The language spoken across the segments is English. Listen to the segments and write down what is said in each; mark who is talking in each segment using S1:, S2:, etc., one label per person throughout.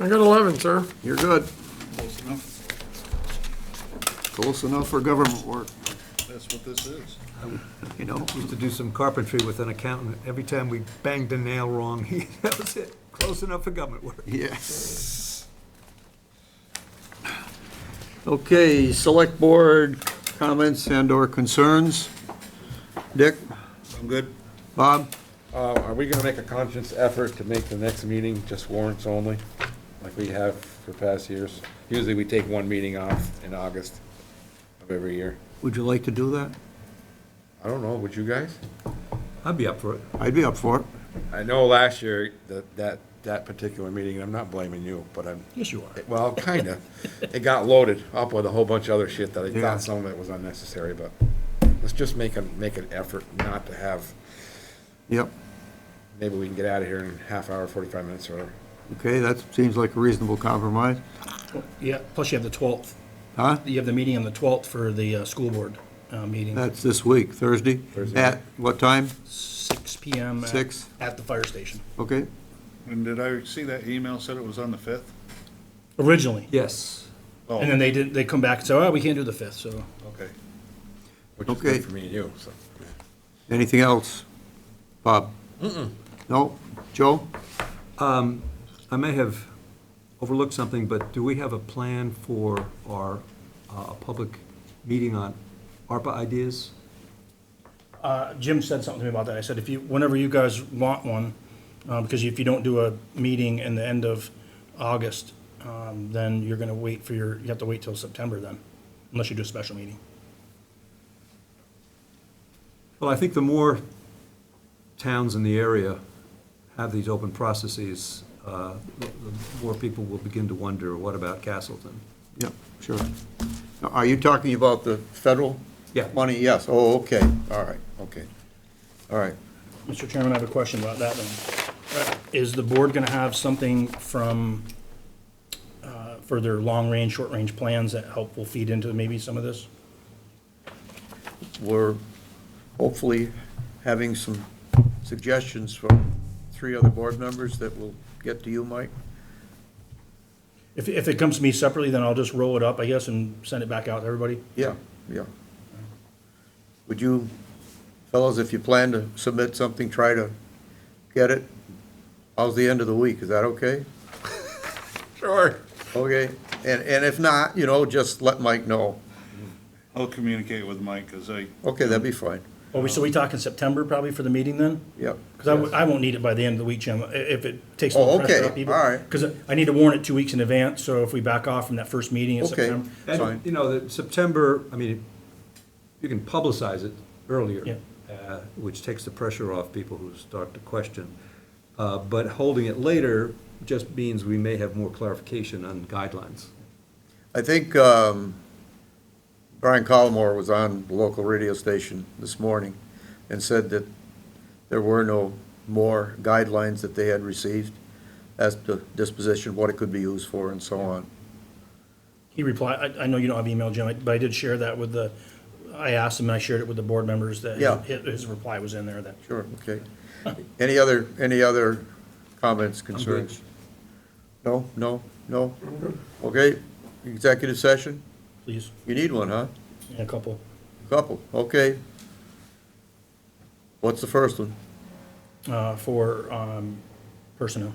S1: I got 11, sir.
S2: You're good.
S3: Close enough.
S2: Close enough for government work,
S3: That's what this is.
S2: you know?
S4: Used to do some carpentry with an accountant. Every time we banged a nail wrong, he, that was it. Close enough for government work.
S2: Yes. Okay, select board comments and/or concerns. Dick,
S3: I'm good.
S2: Bob,
S5: Uh, Are we gonna make a conscious effort to make the next meeting just warrants only, like we have for past years? Usually we take one meeting off in August of every year.
S2: would you like to do that?
S5: I don't know, would you guys?
S4: I'd be up for it.
S2: I'd be up for it.
S5: I know last year, that, that, that particular meeting, and I'm not blaming you, but I'm,
S4: Yes, you are.
S5: well, kinda. It got loaded up with a whole bunch of other shit that I
S2: Yeah.
S5: thought some of it was unnecessary, but let's just make a, make an effort not to have,
S2: Yep.
S5: maybe we can get out of here in half hour, forty-five minutes or whatever.
S2: Okay, that seems like a reasonable compromise.
S6: Yeah, plus you have the 12th.
S2: Huh?
S6: You have the meeting on the 12th for the uh, school board uh, meeting,
S2: That's this week, Thursday?
S5: Thursday.
S2: At what time?
S6: six PM. at-
S2: Six.
S6: At the fire station,
S2: Okay,
S3: And did I see that email said it was on the fifth?
S6: originally.
S4: Yes.
S3: Oh,
S6: And then they did, they come back and say, oh, we can't do the 5th, so.
S3: Okay.
S5: Which is
S2: Okay.
S5: good for me and you, so.
S2: anything else? Bob? No? Joe?
S4: I may have overlooked something, but do we have a plan for our, uh, public meeting on ARPA ideas?
S6: Uh, Jim said something to me about that. I said, if you, whenever you guys want one, uh, because if you don't do a meeting in the end of August, um, then you're going to wait for your, you have to wait till September then, unless you do a special meeting.
S4: Well, I think the more towns in the area have these open processes, uh, the the more people will begin to wonder, what about Castleton?
S2: Yep, sure. Now, Are you talking about the federal?
S4: Yeah.
S2: Money, yes, oh, okay, all right, okay, all right.
S6: Mr. Chairman, I have a question about that then. Is the board going to have something from, uh, for their long-range, short-range plans that help will feed into maybe some of this?
S2: We're hopefully having some suggestions from three other board members that will get to you, Mike.
S6: If, if it comes to me separately, then I'll just roll it up, I guess, and send it back out to everybody.
S2: Yeah, yeah. Would you, fellows, if you plan to submit something, try to get it? How's the end of the week, is that okay?
S5: Sure.
S2: Okay, and, and if not, you know, just let Mike know.
S3: I'll communicate with Mike, cause I,
S2: Okay, that'd be fine,
S6: Are we, so we talking September probably for the meeting then?
S2: yep.
S6: Because I, w- I won't need it by the end of the week, Jim, i- if it takes a
S2: Oh,
S6: little pressure
S2: okay,
S6: off people.
S2: all right.
S6: Because I need to warn it two weeks in advance, so if we back off from that first meeting in
S2: Okay,
S6: September.
S2: fine.
S4: And, you know, that September, I mean, you can publicize it earlier, uh, which takes the pressure off people who start to question. Uh, But holding it later just means we may have more clarification on guidelines.
S2: I think um, Brian Collmore was on the local radio station this morning and said that there were no more guidelines that they had received as to disposition, what it could be used for and so on.
S6: He replied, I, I know you don't have email, Jim, but I did share that with the, I asked him, I shared it with the board members that
S2: Yeah.
S6: his, his reply was in there that.
S2: Sure, okay. Any other, any other comments, concerns? No, no, no? Okay, executive session?
S6: Please,
S2: You need one, huh?
S6: a couple.
S2: Couple, okay. What's the first one?
S6: uh, for um, personnel.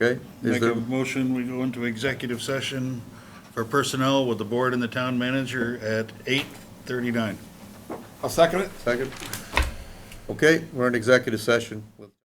S2: Okay? Is
S3: make
S2: there-
S3: a motion, we go into executive session for personnel with the board and the town manager at eight thirty-nine.
S5: I'll second it.
S2: Second. Okay, we're in executive session with